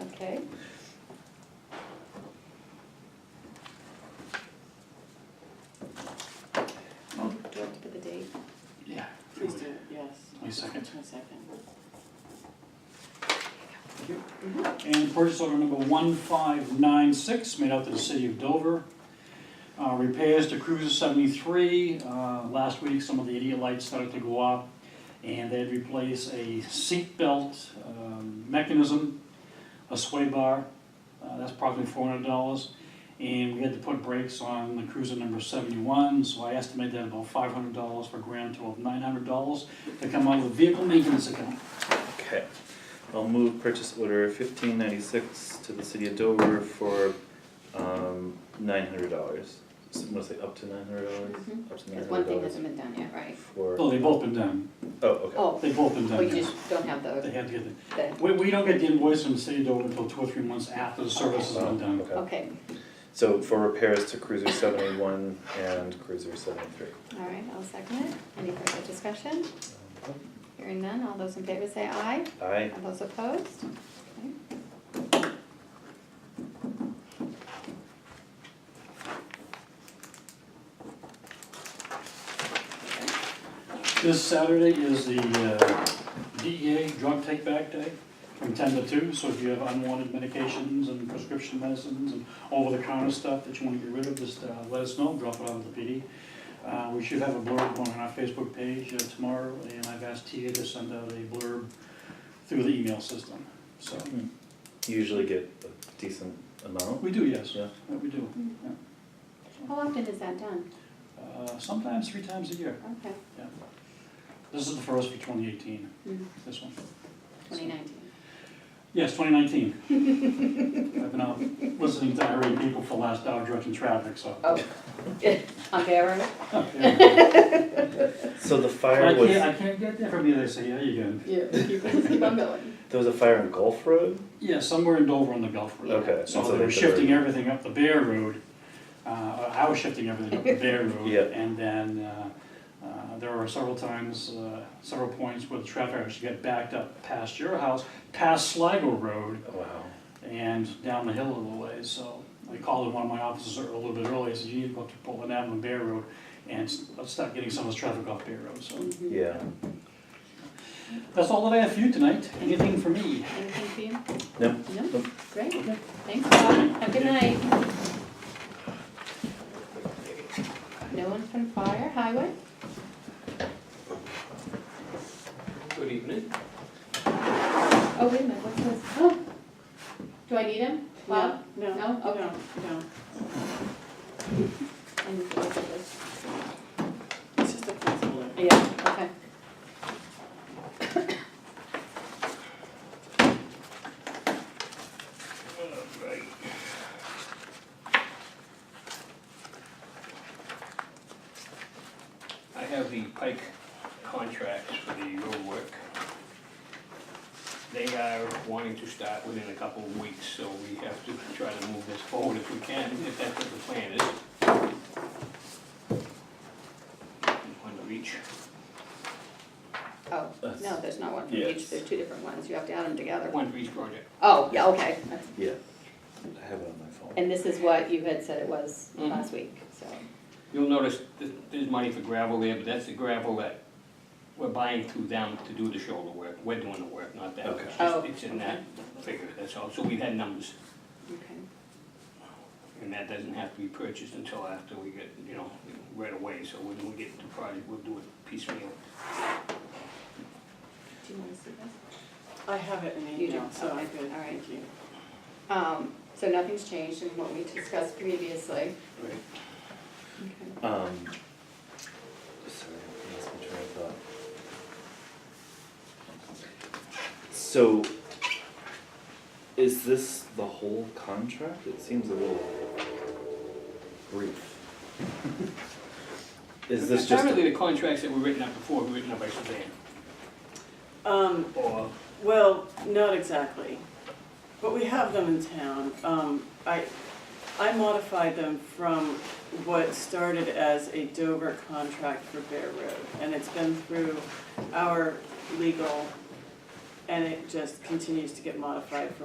Okay. Well- Do I have to put the date? Oh. Yeah. Please do, yes. My second. My second. Thank you. And purchase order number one five nine six, made out to the city of Dover. Uh, repairs to Cruiser seventy-three, uh, last week, some of the idiot lights started to go off, and they'd replace a seat belt, um, mechanism, a sway bar, uh, that's approximately four hundred dollars. And we had to put brakes on the Cruiser number seventy-one, so I estimate that about five hundred dollars for a grand total of nine hundred dollars to come out of the vehicle maintenance account. Okay, I'll move purchase order fifteen ninety-six to the city of Dover for, um, nine hundred dollars. What's it, up to nine hundred dollars? Mhm. Up to nine Because one hundred thing dollars hasn't been done yet, right? for, Well, oh, they've both been done. okay, Oh, They've both been well, done, you yes. just don't have They the, had to get it. the, We, we don't get the invoice from the city of Dover until two or three months after the service has been done. Um, okay. okay, So for repairs to cruiser seventy-one and cruiser seventy-three. all right, I'll second it. Any further discussion? Hearing none, all those in favor say aye. Aye, All those opposed? Okay. This Saturday is the uh, DEA Drug Take Back Day from ten to two, so if you have unwanted medications and prescription medicines and over-the-counter stuff that you wanna get rid of, just uh, let us know, drop it off at the PD. Uh, We should have a blurb on our Facebook page uh, tomorrow, and I've asked TA to send out a blurb through the email system, so, you usually get a decent amount, we do, yes, yeah? Yeah, we do. Mm-hmm. How often is that done? Uh, Sometimes three times a year. Okay, This is the first for twenty eighteen, Mm. this one. twenty nineteen. Yes, twenty nineteen. I've been out listening to irate people for the last hour directing traffic, so. Oh, on camera? Yeah. So But I the fire was, can't, I can't get there from you, they say, yeah, you can. Yeah, keep, keep on going. there was a fire in Gulf Road? Yeah, somewhere in Dover on the Gulf Road. Okay, and so So they they were diverted. shifting everything up the Bear Road. Uh, I was shifting everything up the Bear Road. Yeah. And then, uh, uh, there were several times, uh, several points where the traffic actually got backed up past your house, past Sligo Road, Wow. and down the hill a little ways, so I called in one of my offices a little bit early, I said, you need to go up to Portland Avenue and Bear Road, and s- let's start getting some of this traffic off Bear Road, so. Yeah, That's all that I have for you tonight, anything for me? Anything for you? no, No? Great, thanks, Bob. Have a good night. No one from fire, highway? Good evening. Oh, wait a minute, what's this? Oh, Do I need him? Bob? No, No? no, Okay. no. I need to look at this. It's just a placeholder. Yeah, okay. I have the Pike contracts for the road work. They are wanting to start within a couple of weeks, so we have to try to move this forward if we can, if that's what the plan is. One to each. Oh, That's- no, there's not one for each, Yes. there's two different ones, you have to add them together. one for each project. Oh, yeah, okay. yeah. I have it on my phone. And this is what you had said it was Mm-hmm. Mhm. last week, so. You'll notice that there's money for gravel there, but that's the gravel that we're buying through them to do the shoulder work. We're doing the work, not that. Okay. It's Oh, just- It's in that figure, that's all. So we've had numbers. Okay. And that doesn't have to be purchased until after we get, you know, right away, so when we get the project, we'll do it piecemeal. Do you want to see this? I have it in You do, email, so I'm okay, good, all right. thank you. Um, so nothing's changed in what we discussed previously. Right. Okay. Um, sorry, I lost my train of thought. So, is this the whole contract? It seems a little brief. Is this just, Apparently, the contracts that were written up before were written up by Suzanne, Um, or, well, not exactly, but we have them in town. Um, I, I modified them from what started as a Dover contract for Bear Road. And it's been through our legal, and it just continues to get modified from